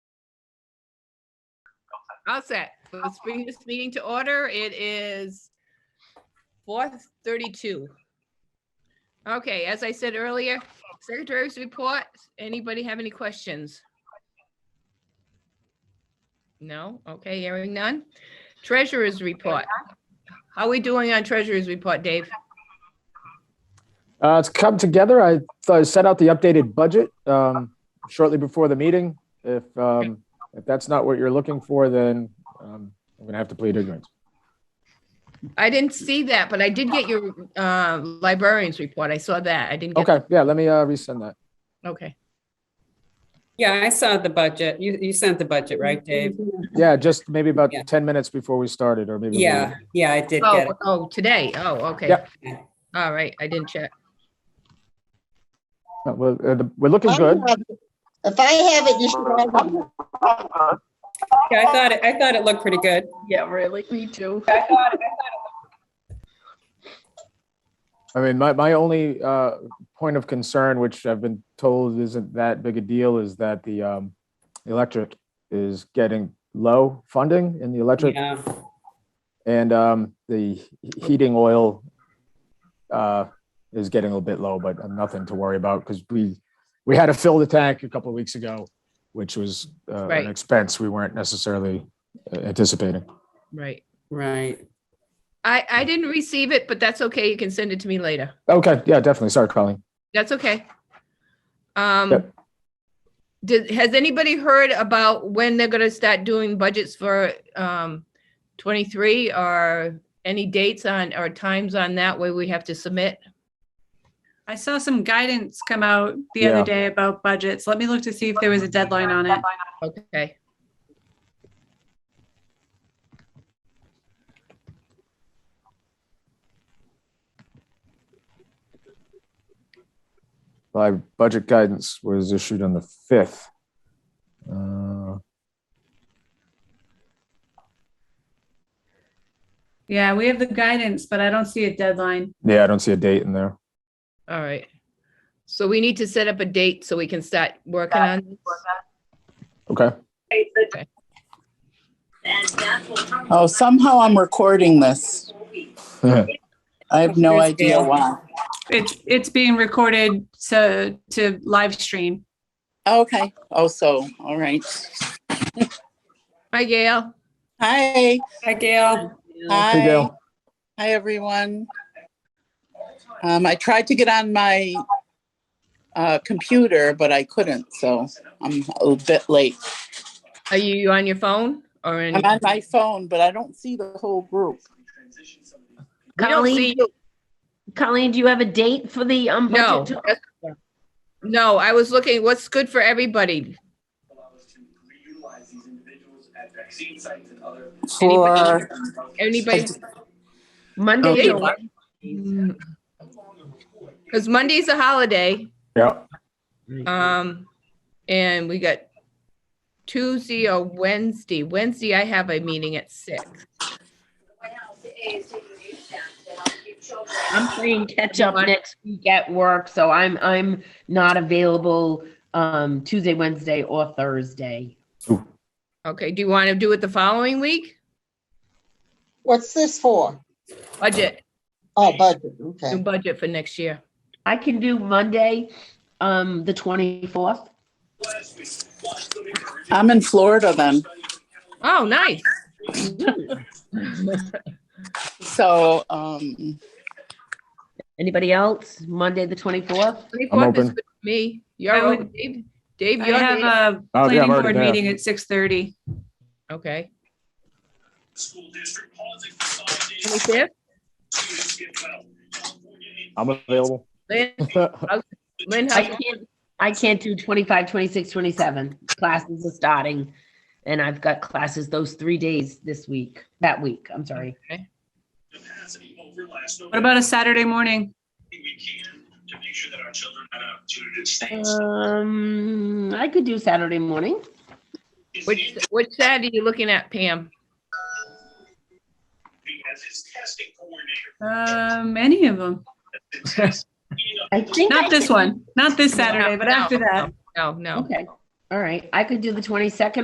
All set. Let's bring this meeting to order. It is four thirty-two. Okay, as I said earlier, secretary's report. Anybody have any questions? No? Okay, hearing none. Treasurer's report. How are we doing on treasurer's report, Dave? Uh, it's come together. I, I set out the updated budget um, shortly before the meeting. If um, if that's not what you're looking for, then um, I'm gonna have to plead ignorance. I didn't see that, but I did get your uh, librarian's report. I saw that. I didn't get. Okay, yeah, let me uh, resend that. Okay. Yeah, I saw the budget. You, you sent the budget, right, Dave? Yeah, just maybe about Yeah. ten minutes before we started, or maybe. a little- Yeah, yeah, I did get Oh, it. oh, today. Oh, okay. Yep. All right, I didn't check. Uh, Well, uh, the- we're looking good. Oh. If I have it, you should all have it. Yeah, I thought, it- I thought it looked pretty good. Yeah, really, me too. I mean, my, my only uh, point of concern, which I've been told isn't that big a deal, is that the um, electric is getting low funding in the electric Yeah, And um, the he- heating oil uh, is getting a little bit low, but nothing to worry about because we, we had to fill the tank a couple of weeks ago, which was uh, Right. an expense we weren't necessarily uh, anticipating. Right. right. I, I didn't receive it, but that's okay. You can send it to me later. Okay, yeah, definitely. Sorry, Colleen. That's okay. Um, Yep. did, has anybody heard about when they're gonna start doing budgets for, um, twenty-three or any dates on, or times on that way we have to submit? I saw some guidance come out the other Yeah. day about budgets. Let me look to see if there was a deadline on it. Okay. My budget guidance was issued on the 5th. Uh, Yeah, we have the guidance, but I don't see a deadline. Yeah, I don't see a date in there. All right. So we need to set up a date so we can start working on this. Okay. Oh, somehow I'm recording this. I have no idea why. It's, it's being recorded to, to live stream. Okay. Oh, so, all right. Hi, Gail. Hi. Hi, Gail. Hey, Hi. Gail. Hi, everyone. Um, I tried to get on my uh, computer, but I couldn't, so I'm a bit late. Are you on your phone or in? I'm on my phone, but I don't see the whole group. We don't see Colleen, you. Colleen, do you have a date for the um? No. budget? that's- No, I was looking, what's good for everybody? allow us to reutilize these individuals at vaccine sites and other. For, Anybody? Monday, Okay. July- Because Monday's a holiday, Yeah. um, and we got Tuesday or Wednesday. Wednesday, I have a meeting at six. I'm playing catch up July. next week at work, so I'm, I'm not available um Tuesday, Wednesday or Thursday. Okay, do you want to do it the following week? What's this for? Budget, Oh, budget, do okay. budget for next year. I can do Monday, um, the twenty-fourth. I'm in Florida then, Oh, nice. so, um, Anybody else? Monday, the twenty-fourth? 24th is open. good for Me, I you're would- open, Dave? Dave, I you're, Dave? have uh, a Oh, yeah, I'm planning already board there. meeting at 6:30. okay. School district policy consolidated 25th? to get well. California needs I'm available. Lynn, Lynn, I how- can't, I can't do 25, 26, 27. Classes are starting and I've got classes those three days this week, that week, I'm sorry. capacity over last What November. about a Saturday morning? We can to make sure that our children have an opportunity to stay. in school. Um, I could do Saturday morning. It's which, which Saturday are you looking at, Pam? Andy as his testing coordinator. Um, any of them. It's his- I think. I Not this can- one, not this Saturday, but No, after that. No, no. Okay, all right. I could do the 22nd